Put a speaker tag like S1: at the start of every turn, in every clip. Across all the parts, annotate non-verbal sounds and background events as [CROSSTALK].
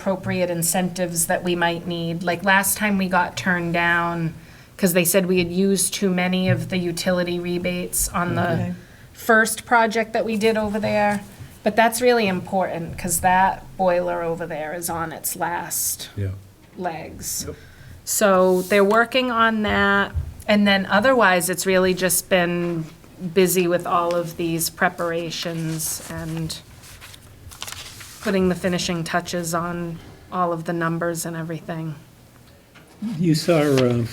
S1: appropriate incentives that we might need. Like last time we got turned down because they said we had used too many of the utility rebates on the first project that we did over there. But that's really important because that boiler over there is on its last
S2: Yeah.
S1: legs. So they're working on that. And then otherwise, it's really just been busy with all of these preparations and putting the finishing touches on all of the numbers and everything.
S2: You saw um,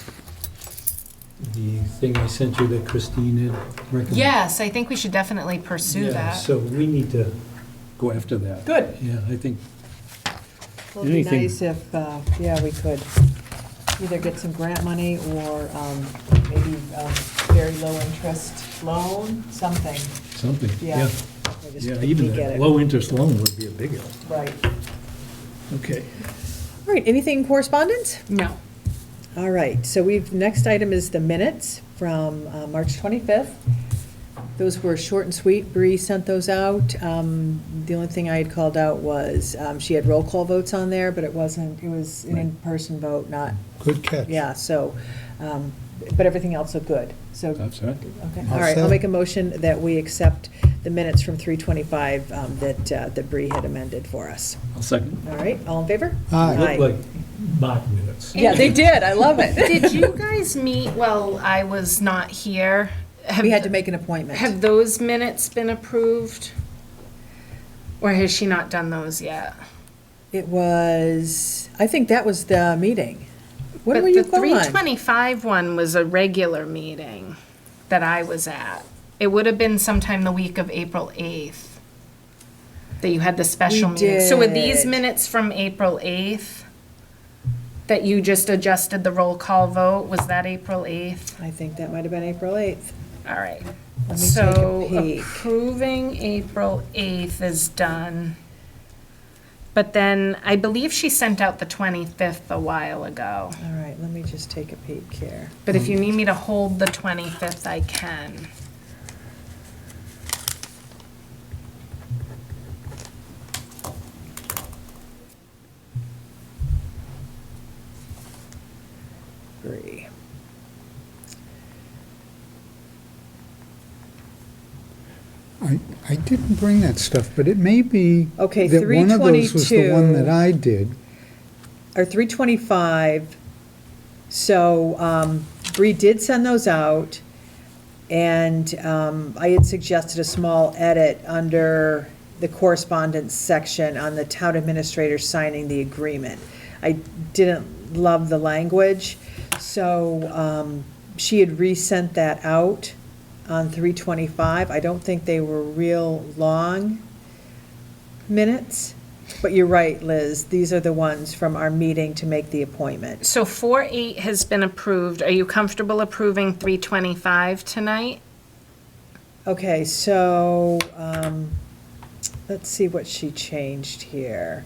S2: the thing I sent you that Christine had recommended?
S1: Yes, I think we should definitely pursue
S2: Yeah,
S1: that.
S2: So we need to go after that.
S3: Good.
S2: Yeah, I think,
S4: Well, it'd be
S2: Anything-
S4: nice if, uh, yeah, we could either get some grant money or um, maybe um, very low-interest loan, something,
S2: something, yeah.
S4: yeah. We just
S2: Yeah,
S4: didn't
S2: even
S4: get
S2: that
S4: it.
S2: low-interest loan would be a big help.
S4: Right.
S2: Okay.
S4: All right, anything in correspondence?
S1: No.
S4: All right, so we've, next item is the minutes from uh, March 25th. Those were short and sweet. Bree sent those out. Um, The only thing I had called out was, um, she had roll call votes on there, but it wasn't, it was an
S2: Right.
S4: in-person vote, not
S5: Good catch.
S4: Yeah, so, um, but everything else looked good. So,
S2: That's right.
S4: okay,
S5: All
S4: all right, I'll
S5: set.
S4: make a motion that we accept the minutes from 3:25 um, that uh, that Bree had amended for us.
S2: I'll second.
S4: All right, all in favor?
S5: Aye.
S2: Look like Martin minutes.
S4: Yeah, they did, I love [LAUGHS] it.
S1: [LAUGHS] Did you guys meet while I was not here? Have-
S4: We had to make an appointment.
S1: Have those minutes been approved? Or has she not done those yet?
S4: It was, I think that was the meeting. What
S1: But
S4: were you
S1: the
S4: gone?
S1: 325 one was a regular meeting that I was at. It would have been sometime the week of April 8th that you had the special
S4: We
S1: meeting. So were these
S4: did.
S1: minutes from April 8th that you just adjusted the roll call vote? Was that April 8th?
S4: I think that might have been April 8th.
S1: All right.
S4: Let me take a
S1: So
S4: peek.
S1: approving April 8th is done. But then I believe she sent out the 25th a while ago.
S4: All right, let me just take a peek here.
S1: But if you need me to hold the 25th, I can.
S4: Bree.
S5: I, I didn't bring that stuff, but it may be
S4: Okay,
S5: that one of those was the one that
S4: 322.
S5: I did.
S4: or three twenty-five. So, um, Bree did send those out, and, um, I had suggested a small edit under the correspondence section on the town administrator signing the agreement. I didn't love the language, so, um, she had resent that out on three twenty-five. I don't think they were real long minutes. But you're right, Liz, these are the ones from our meeting to make the appointment.
S1: So 4-8 has been approved. Are you comfortable approving 325 tonight?
S4: Okay, so, um, let's see what she changed here.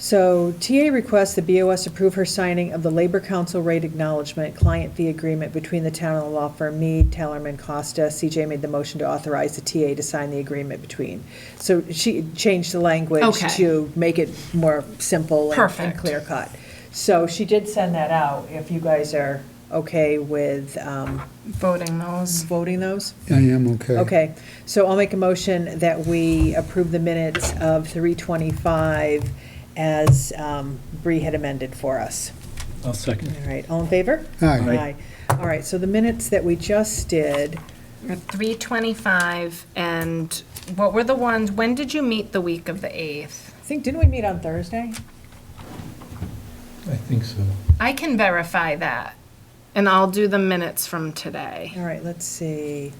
S4: So TA requests the BOS approve her signing of the Labor Council rate acknowledgement client fee agreement between the town and the law firm Mead, Tellerman, Costa. CJ made the motion to authorize the TA to sign the agreement between. So she changed the language
S1: Okay.
S4: to make it more simple and- and
S1: Perfect.
S4: clear cut. So she did send that out, if you guys are okay with um,
S1: Voting those.
S4: voting those.
S5: I am okay.
S4: Okay, so I'll make a motion that we approve the minutes of 3:25 as um, Bree had amended for us.
S2: I'll
S4: All
S2: second.
S4: right, all in favor?
S5: Aye.
S4: All right, so the minutes that we just did,
S1: 325 and what were the ones, when did you meet the week of the 8th?
S4: I think, didn't we meet on Thursday?
S2: I think so.
S1: I can verify that and I'll do the minutes from today.
S4: All right, let's see.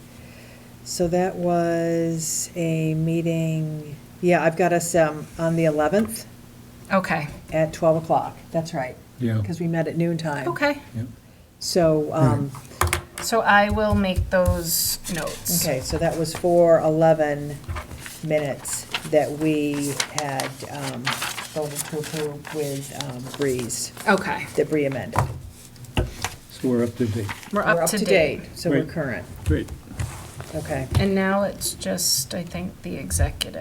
S4: So that was a meeting, yeah, I've got us um, on the 11th
S1: Okay,
S4: at 12 o'clock. That's right,
S2: Yeah.
S4: because we met at noon time.
S1: okay.
S4: So, um,
S1: So I will make those notes.
S4: okay, so that was for 11 minutes that we had um, voted to approve with um, Breeze,
S1: Okay,
S4: that Bree amended.
S2: So we're up to date.
S1: we're
S4: We're
S1: up to date.
S4: So we're
S2: Great.
S4: current.
S2: Great.
S4: okay.
S1: And now it's just, I think, the executive.